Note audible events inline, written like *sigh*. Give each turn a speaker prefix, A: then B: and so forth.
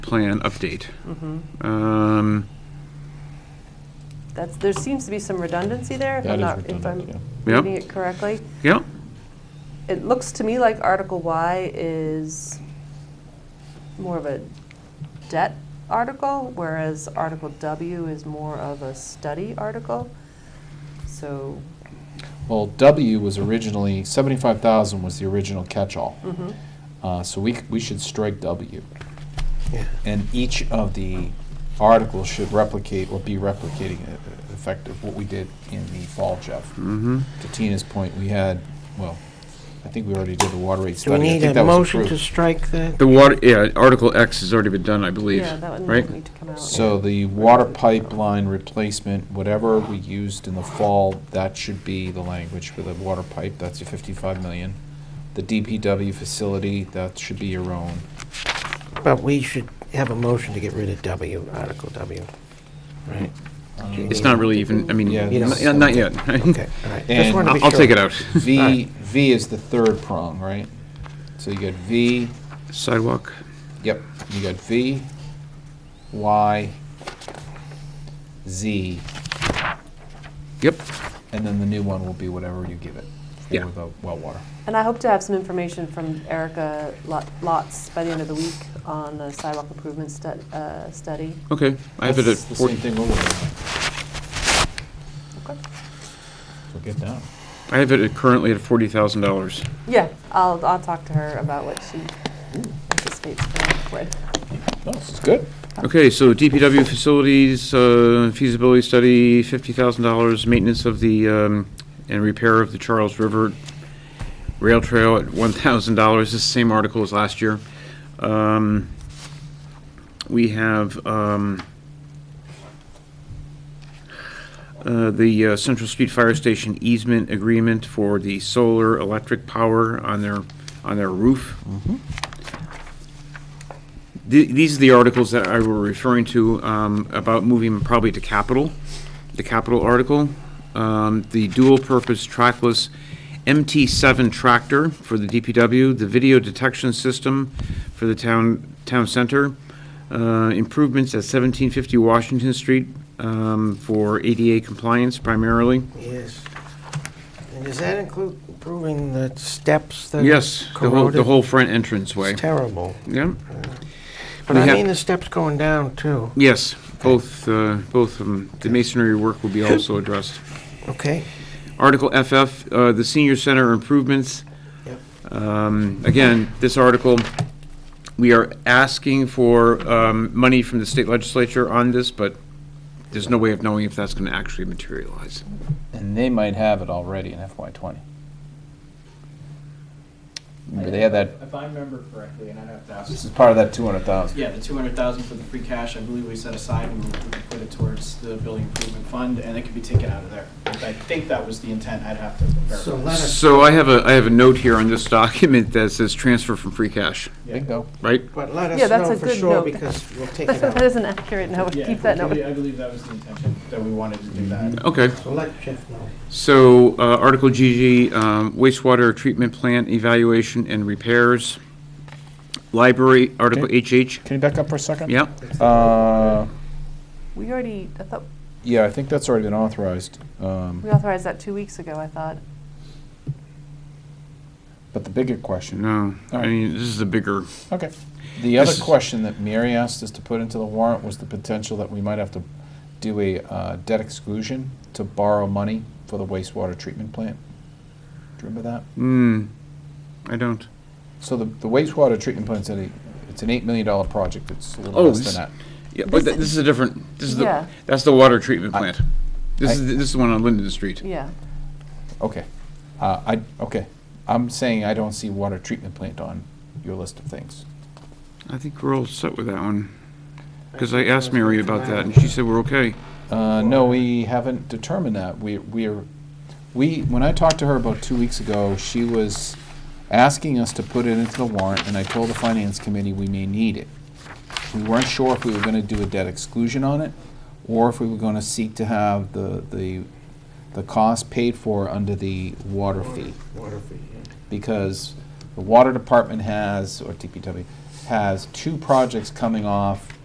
A: plan update.
B: Mm-hmm.
A: Um,
B: That's, there seems to be some redundancy there, if
C: That
B: I'm
C: is
B: not, if I'm
C: redundant,
A: yeah.
B: reading
A: Yep.
B: it correctly.
A: Yeah,
B: It looks to me like Article Y is more of a debt article, whereas Article W is more of a study article. So,
C: Well, W was originally, 75,000 was the original catch-all. Uh, So we, c- we should strike W. And each of the articles should replicate or be replicating e- e- effect of what we did in the fall, Jeff.
D: Mm-hmm.
C: To Tina's point, we had, well, I think we already did the water rate
D: Do
C: study.
D: we
C: I
D: need
C: think
D: a
C: that was
D: motion to
C: approved.
D: strike that?
A: the water, yeah, Article X has already been done, I believe,
B: yeah, that one
A: right?
B: would need to come out.
C: So the water pipeline replacement, whatever we used in the fall, that should be the language for the water pipe, that's your fifty-five million. The DPW facility, that should be your own.
D: But we should have a motion to get rid of W, Article W. Right.
A: It's not really even, I mean,
C: Yeah,
A: not
C: this-
A: yeah, not yet. *laughs*
D: Okay, all right. Just
C: And
D: wanted to be
A: I'll I'll take
D: sure.
A: it out. *laughs*
C: V,
D: Alright.
C: V is the third prong, right? So you got V,
A: Sidewalk,
C: yep, you got V, Y, Z,
A: yep,
C: and then the new one will be whatever you give it
A: Yeah.
C: for the well water.
B: And I hope to have some information from Erica Lot- Lotz by the end of the week on the sidewalk improvement stu- uh, study.
A: okay. I have it at
C: That's the same
A: 14,
C: thing over there.
B: Okay.
C: So get down.
A: I have it at currently at $40,000.
B: Yeah, I'll, I'll talk to her about what she anticipates for Red.
C: No, this is good.
A: Okay, so DPW facilities uh, feasibility study, $50,000, maintenance of the, um, and repair of the Charles River Rail Trail at $1,000. This is the same article as last year. Um, We have um, uh, the uh, Central Street Fire Station easement agreement for the solar electric power on their, on their roof. The- These are the articles that I were referring to um, about moving probably to capital, the capital article. Um, The dual-purpose trackless MT7 tractor for the DPW, the video detection system for the town, town center, uh, improvements at 1750 Washington Street um, for ADA compliance primarily.
D: Yes. And does that include improving the steps that
A: Yes, the whole, the
D: corroded?
A: whole front entrance way.
D: It's terrible.
A: Yeah,
D: But
A: We
D: I
A: have-
D: mean the steps going down, too.
A: yes, both, uh, both of 'em. The masonry work will be also addressed.
D: Okay?
A: Article FF, uh, the senior center improvements. Um, Again, this article, we are asking for um, money from the state legislature on this, but there's no way of knowing if that's going to actually materialize.
C: And they might have it already in FY twenty. Remember, they had that,
E: If I remember correctly, and I'd have to
C: this
E: ask,
C: is part of that two hundred thousand.
E: yeah, the two hundred thousand for the free cash, I believe we set aside and we put it towards the building improvement fund, and it could be taken out of there. I think that was the intent, I'd have to
D: So
E: verify.
D: let us,
A: So I have a, I have a note here on this *laughs* document that says transfer from free cash,
C: Bingo.
A: right?
D: but let
B: Yeah,
D: us
B: that's
D: know
B: a
D: for
B: good
D: sure,
B: note.
D: because
B: *laughs*
D: we'll take it
B: That
D: out.
B: is an accurate note,
E: Yeah,
B: keep that
E: I
B: note.
E: believe- I believe that was the intention, that we wanted to do that.
A: Okay,
D: So let Jeff know.
A: so uh, Article GG, um, wastewater treatment plant evaluation and repairs. Library, Article HH,
C: Can you back up for a second?
A: yeah,
C: Uh,
B: We already, I thought,
C: yeah, I think that's already been authorized, um,
B: we authorized that two weeks ago, I thought.
C: but the bigger question,
A: no, I
C: Alright.
A: mean, this is a bigger.
C: okay. The other
A: This is-
C: question that Mary asked us to put into the warrant was the potential that we might have to do a, uh, debt exclusion to borrow money for the wastewater treatment plant. Do you remember that?
A: Hmm, I don't.
C: So the, the wastewater treatment plant's at a, it's an eight million dollar project, it's a little
A: Oh,
C: less
A: this-
C: than that.
A: Yeah, but th- this is a different, this is the,
B: Yeah.
A: that's the water treatment
C: I-
A: plant. This
C: I-
A: is, the- this is the one on Linden Street.
B: Yeah,
C: Okay, uh, I, okay, I'm saying I don't see water treatment plant on your list of things.
A: I think we're all set with that one. Because I asked Mary about that, and she said we're okay.
C: Uh, no, we haven't determined that, we, we're, we, when I talked to her about two weeks ago, she was asking us to put it into the warrant, and I told the finance committee we may need it. We weren't sure if we were gonna do a debt exclusion on it, or if we were gonna seek to have the, the, the cost paid for under the water fee.
D: Water fee, yeah.
C: because the water department has, or DPW, has two projects coming off